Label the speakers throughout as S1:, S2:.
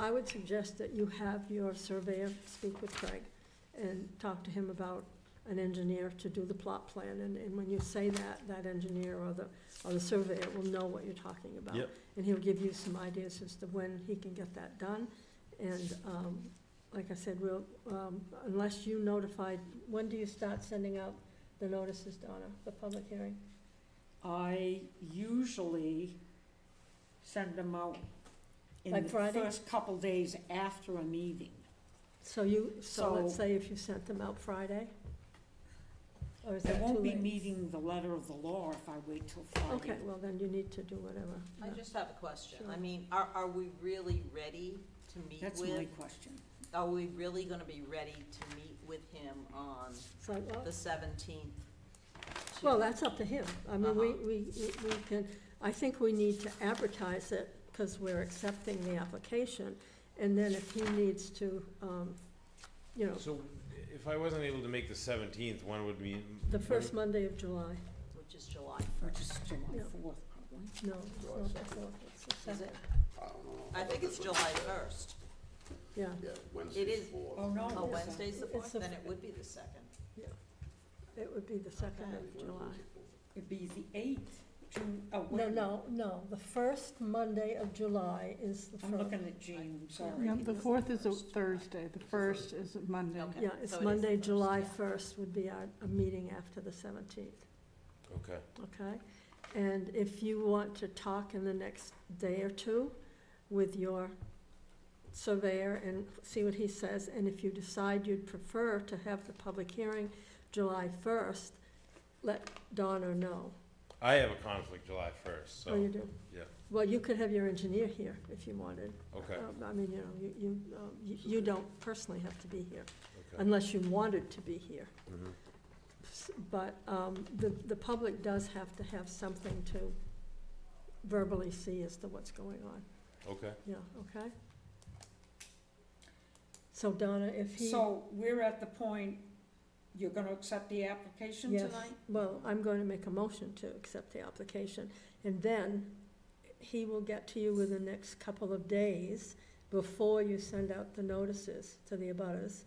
S1: I would suggest that you have your surveyor speak with Craig and talk to him about an engineer to do the plot plan. And, and when you say that, that engineer or the, or the surveyor will know what you're talking about.
S2: Yep.
S1: And he'll give you some ideas as to when he can get that done. And, um, like I said, we'll, um, unless you notified, when do you start sending out the notices, Donna, the public hearing?
S3: I usually send them out in
S1: Like
S3: the
S1: Friday?
S3: first couple days after a meeting.
S1: So you, so let's
S3: So-
S1: say if you sent them out Friday? Or is
S3: I
S1: that too
S3: won't be
S1: late?
S3: meeting the letter of the law if I wait till
S1: Okay,
S3: Friday.
S1: well, then you need to do whatever.
S4: I just have a question.
S1: Sure.
S4: I mean, are, are we really ready to meet
S3: That's my
S4: with?
S3: question.
S4: Are we really gonna be ready to meet with him on
S1: So, well,
S4: the seventeenth?
S1: Well, that's up to him. I mean, we,
S4: Uh-huh.
S1: we, we we can, I think we need to advertise it because we're accepting the application. And then if he needs to, um, you know,
S2: So if I wasn't able to make the seventeenth, one would be?
S1: the first Monday of July,
S4: Which is July
S3: Which
S4: first.
S3: is July
S1: Yeah.
S3: fourth, probably.
S1: no, it's not the fourth, it's the
S4: Is it?
S1: second.
S4: I think it's July first.
S1: Yeah,
S5: Yeah,
S4: It is.
S5: Wednesday's fourth.
S3: Oh, no.
S4: Oh, Wednesday's the
S1: It's the-
S4: fourth, then it would be the second.
S1: it would be the second of
S5: Wednesday's
S1: July.
S5: the fourth.
S3: It'd be the eighth, June, oh, wait.
S1: No, no, no, the first Monday of July is the
S3: I'm
S1: first.
S3: looking at June, sorry.
S6: Yeah, the fourth is a Thursday, the first is a Monday.
S4: Okay.
S1: Yeah,
S4: So
S1: it's
S4: it is
S1: Monday,
S4: the first,
S1: July
S4: yeah.
S1: first would be our, a meeting after the seventeenth.
S2: Okay.
S1: Okay, and if you want to talk in the next day or two with your surveyor and see what he says, and if you decide you'd prefer to have the public hearing July first, let Donna know.
S2: I have a conflict July first,
S1: Oh, you
S2: so,
S1: do?
S2: yeah,
S1: Well, you could have your engineer here if you wanted.
S2: okay,
S1: Um, I mean, you know, you, you, um, you you don't personally have to be here,
S2: okay.
S1: unless you wanted to be here.
S2: Mhm.
S1: S- But um, the, the public does have to have something to verbally see as to what's going on,
S2: Mm-hmm. Okay,
S1: yeah, okay? So Donna, if he.
S3: So we're at the point, you're gonna accept the application
S1: Yes.
S3: tonight?
S1: Well, I'm going to make a motion to accept the application, and then he will get to you within the next couple of days before you send out the notices to the abutters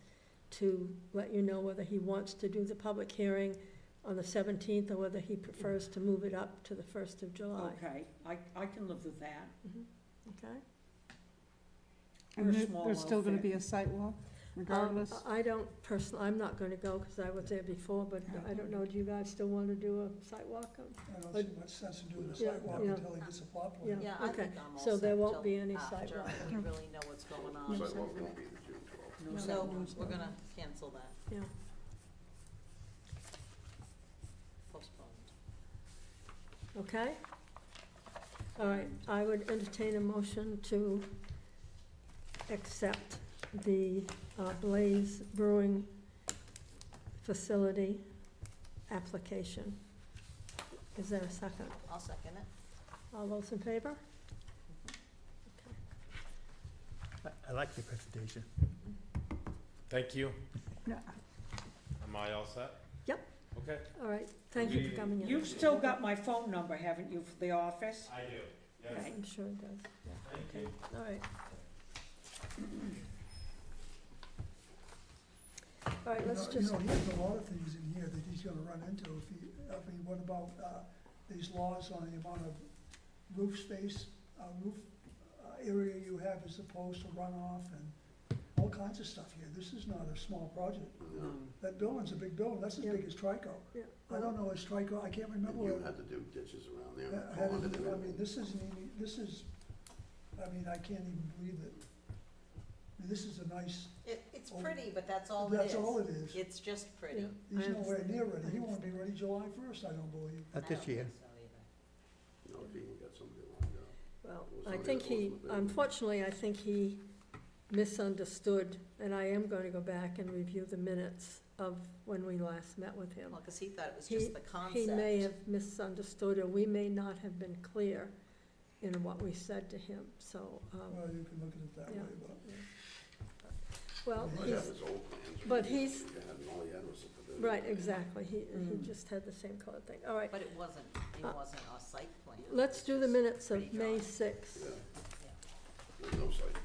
S1: to let you know whether he wants to do the public hearing on the seventeenth or whether he prefers to move it up to the first of July, Mm-hmm.
S3: Okay, I, I can live with that.
S1: okay?
S3: We're a
S6: And there-
S3: small
S6: there's still gonna
S3: outfit.
S6: be a site walk regardless.
S1: Um, I don't personally, I'm not gonna go, because I was there before, but I don't know, do you guys still want to do a site walk?
S7: I don't
S1: But-
S7: see much sense in doing a
S1: Yeah,
S7: sidewalk
S1: yeah.
S7: until he gets a plot plan.
S1: Yeah,
S4: Oh, Yeah, I
S1: okay.
S4: think I'm all
S1: So there
S4: set
S1: won't
S4: till
S1: be any
S4: after
S1: sidewalk.
S4: We really know what's going
S5: Sidewalk
S4: on.
S5: won't be the June twelfth.
S3: No
S4: So
S3: sidewalk.
S4: we're gonna cancel that,
S1: Yeah,
S4: postpone.
S1: okay? All right, I would entertain a motion to accept the uh, Blaze Brewing Facility application. Is there a second?
S4: I'll second it.
S1: All those in favor? Okay.
S8: I- I like your presentation.
S2: thank you.
S6: Yeah.
S2: Am I all set?
S1: Yep.
S2: Okay.
S1: All right, thank you for coming in.
S3: You've still got my phone number, haven't you, for the office?
S2: I do,
S3: yes.
S1: I'm sure it does, yeah,
S2: Thank you.
S1: all right. All right,
S7: You
S1: let's
S7: know, you
S1: just,
S7: know, he has a lot of things in here that he's gonna run into if he, I mean, what about, uh, these laws on the amount of roof space, uh, roof uh, area you have as opposed to runoff and all kinds of stuff here. This is not a small project. That building's a big building. That's as
S1: Yeah.
S7: big as Trico.
S1: yeah,
S7: I don't know, is Trico, I can't remember.
S5: You
S7: what-
S5: had to do ditches around there.
S7: Yeah, uh, how
S5: pond
S7: did
S5: and
S7: it- I mean,
S5: everything.
S7: this isn't, even- this is, I mean, I can't even believe it. I mean, This is a nice,
S4: It, it's pretty, but that's all it is.
S7: Oh, that's all it is.
S4: It's just
S1: yeah.
S4: pretty.
S7: He's
S1: I
S7: nowhere near
S1: understand.
S7: ready. He
S1: I
S7: won't be ready July first, I don't believe.
S8: Not this year.
S5: No, if he ain't got somebody lined up.
S1: Well,
S5: Or
S1: I
S5: somebody
S1: think
S5: that
S1: he,
S5: wasn't there.
S1: unfortunately, I think he misunderstood, and I am going to go back and review the minutes of when we last met with him.
S4: Well, because he thought it was just the
S1: He may
S4: concept.
S1: have misunderstood, or we may not have been clear in what we said to him, so, um,
S7: Well, you can look at it that
S1: Yeah.
S7: way, but.
S1: well,
S5: Might have
S1: he's,
S5: his old plans.
S1: but he's-
S5: Yeah, and all he had was a pavilion.
S1: right, exactly, he, he
S3: Mm.
S1: just had the same color thing. All right,
S4: But it wasn't, it
S1: Uh,
S4: wasn't a site plan.
S1: let's do the minutes of May
S4: Pretty dry.
S5: Yeah,
S1: 6th.
S5: there's no site